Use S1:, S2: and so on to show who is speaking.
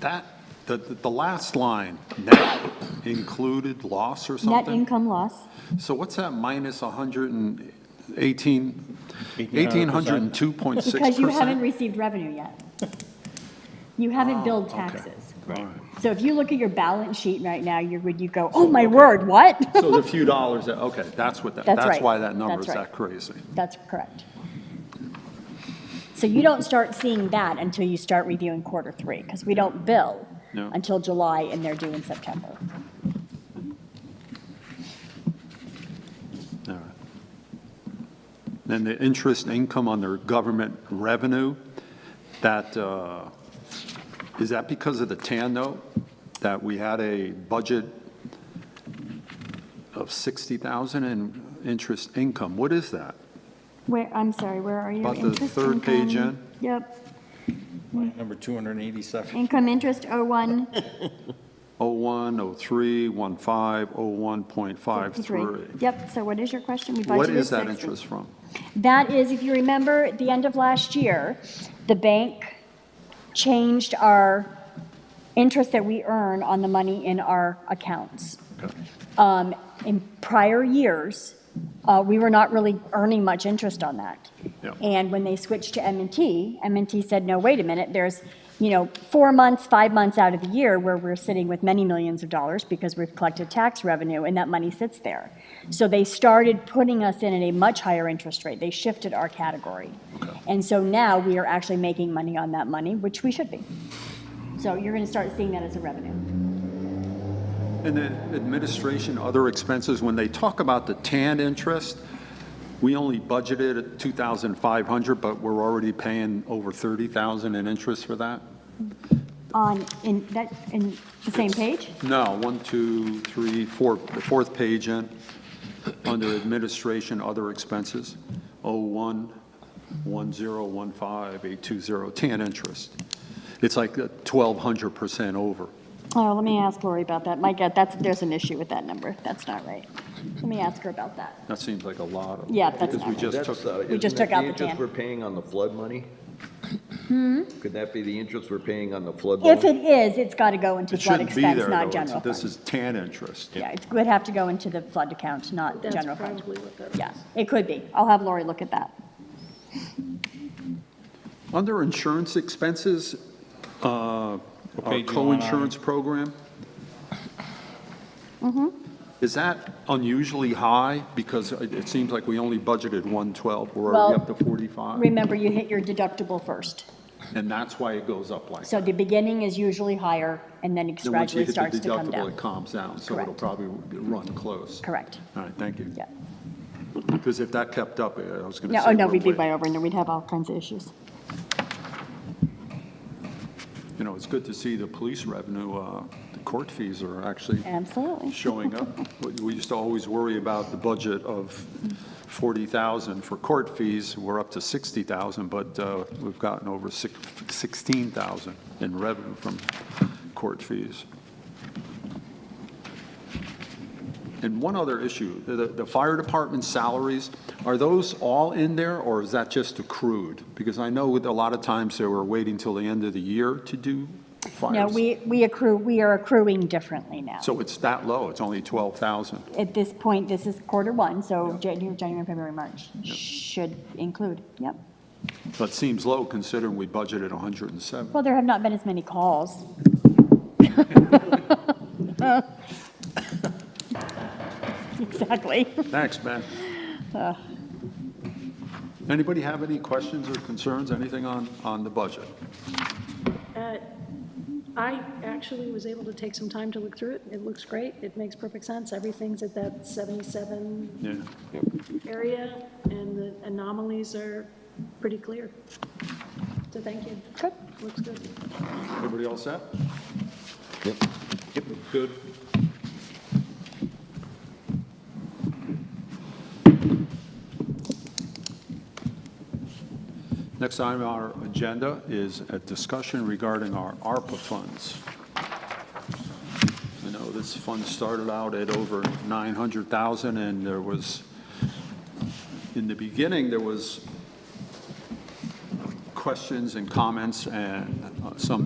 S1: That, the, the the last line, net included loss or
S2: Net
S1: something?
S2: income loss,
S1: So what's that minus 118, 1,802.6%?
S2: because you haven't received revenue yet. You haven't billed taxes.
S1: Oh, Right.
S2: So if you look at your balance sheet right now, you're, would you go, oh my word, what?
S1: So the few dollars, that- okay, that's what, that-
S2: That's
S1: that's
S2: right.
S1: why that number is
S2: That's
S1: that
S2: right.
S1: crazy.
S2: That's correct. So you don't start seeing that until you start reviewing quarter three, because we don't bill
S1: No.
S2: until July, and they're due in September.
S1: All right. Then the interest income on their government revenue, that, uh, is that because of the TAN note? That we had a budget of 60,000 in interest income? What is that?
S2: Where, I'm sorry, where are you?
S1: About the
S2: Interest
S1: third page
S2: income. Yep,
S3: Number 287.
S2: income interest, oh, one,
S1: 01, 03, 15,
S2: Oh, three.
S1: 01.53.
S2: Yep, so what is your question? We
S1: What
S2: budgeted
S1: is that
S2: 60.
S1: interest from?
S2: That is, if you remember, at the end of last year, the bank changed our interest that we earn on the money in our accounts. Um, In prior years, uh, we were not really earning much interest on that.
S1: Yeah.
S2: And when they switched to m and T, m and T said, no, wait a minute, there's, you know, four months, five months out of the year where we're sitting with many millions of dollars because we've collected tax revenue and that money sits there. So they started putting us in at a much higher interest rate. They shifted our category. And so now we are actually making money on that money, which we should be. So you're going to start seeing that as a revenue.
S1: And then administration, other expenses, when they talk about the TAN interest, we only budgeted at 2,500, but we're already paying over 30,000 in interest for that?
S2: On, in that, in the same page?
S1: No, one, two, three, four, the fourth page in, under administration, other expenses, oh, 01, 1015, 820, TAN interest. It's like a 1,200% over.
S2: Oh, let me ask Lori about that. My God, that's, there's an issue with that number. That's not right. Let me ask her about that.
S1: That seems like a lot of.
S2: Yeah, that's not right.
S1: Because we just
S4: That's,
S1: took,
S4: uh,
S2: We just
S4: isn't
S2: took
S4: that
S2: out
S4: the
S2: the
S4: interest
S2: tan.
S4: we're paying on the flood money? Could that be the interest we're paying on the flood
S2: If
S4: loan?
S2: it is, it's got to go into
S1: it
S2: flood
S1: shouldn't be there,
S2: expense,
S1: though.
S2: not
S1: It's-
S2: general
S1: This
S2: fund.
S1: is TAN interest.
S2: Yeah, it would have to go into the flood account, not the
S5: That's
S2: general fund.
S5: probably what that
S2: Yeah, it could be. I'll have Lori look at that.
S1: Under insurance expenses, uh, our
S3: page you want on?
S1: co-insurance program?
S2: Mm-hmm.
S1: Is that unusually high? Because it it seems like we only budgeted 112, we're already
S2: Well,
S1: up to 45,
S2: Remember, you hit your deductible first.
S1: and that's why it goes up like that.
S2: So the beginning is usually higher, and then it
S1: Then once
S2: gradually
S1: you hit the
S2: starts to come
S1: deductible,
S2: down.
S1: it calms down, so it'll
S2: Correct.
S1: probably run close.
S2: Correct.
S1: All right, thank you.
S2: Yeah.
S1: Because if that kept up, I was going to
S2: No,
S1: say.
S2: oh, no,
S1: we're
S2: we'd be
S1: way-
S2: way over, and we'd have all kinds of issues.
S1: You know, it's good to see the police revenue, uh, the court fees are actually
S2: Absolutely.
S1: showing up. We- We used to always worry about the budget of 40,000 for court fees. We're up to 60,000, but uh, we've gotten over six- 16,000 in revenue from court fees. And one other issue, the, the fire department salaries, are those all in there, or is that just accrued? Because I know with a lot of times they were waiting till the end of the year to do fires.
S2: No, we, we accrue, we are accruing differently now.
S1: So it's that low, it's only 12,000.
S2: At this point, this is quarter one, so January, January, February, March should include, yep.
S1: That seems low considering we budgeted 107.
S2: Well, there have not been as many calls. Exactly.
S1: Thanks, Ben. Anybody have any questions or concerns, anything on, on the budget?
S5: Uh, I actually was able to take some time to look through it. It looks great. It makes perfect sense. Everything's at that 77
S1: Yeah.
S5: area, and the anomalies are pretty clear. So thank you.
S2: Good.
S5: Looks good.
S1: Everybody all set?
S4: Yep.
S1: Good. Next item on our agenda is a discussion regarding our ARPA funds. I know this fund started out at over 900,000, and there was, in the beginning, there was questions and comments and uh, some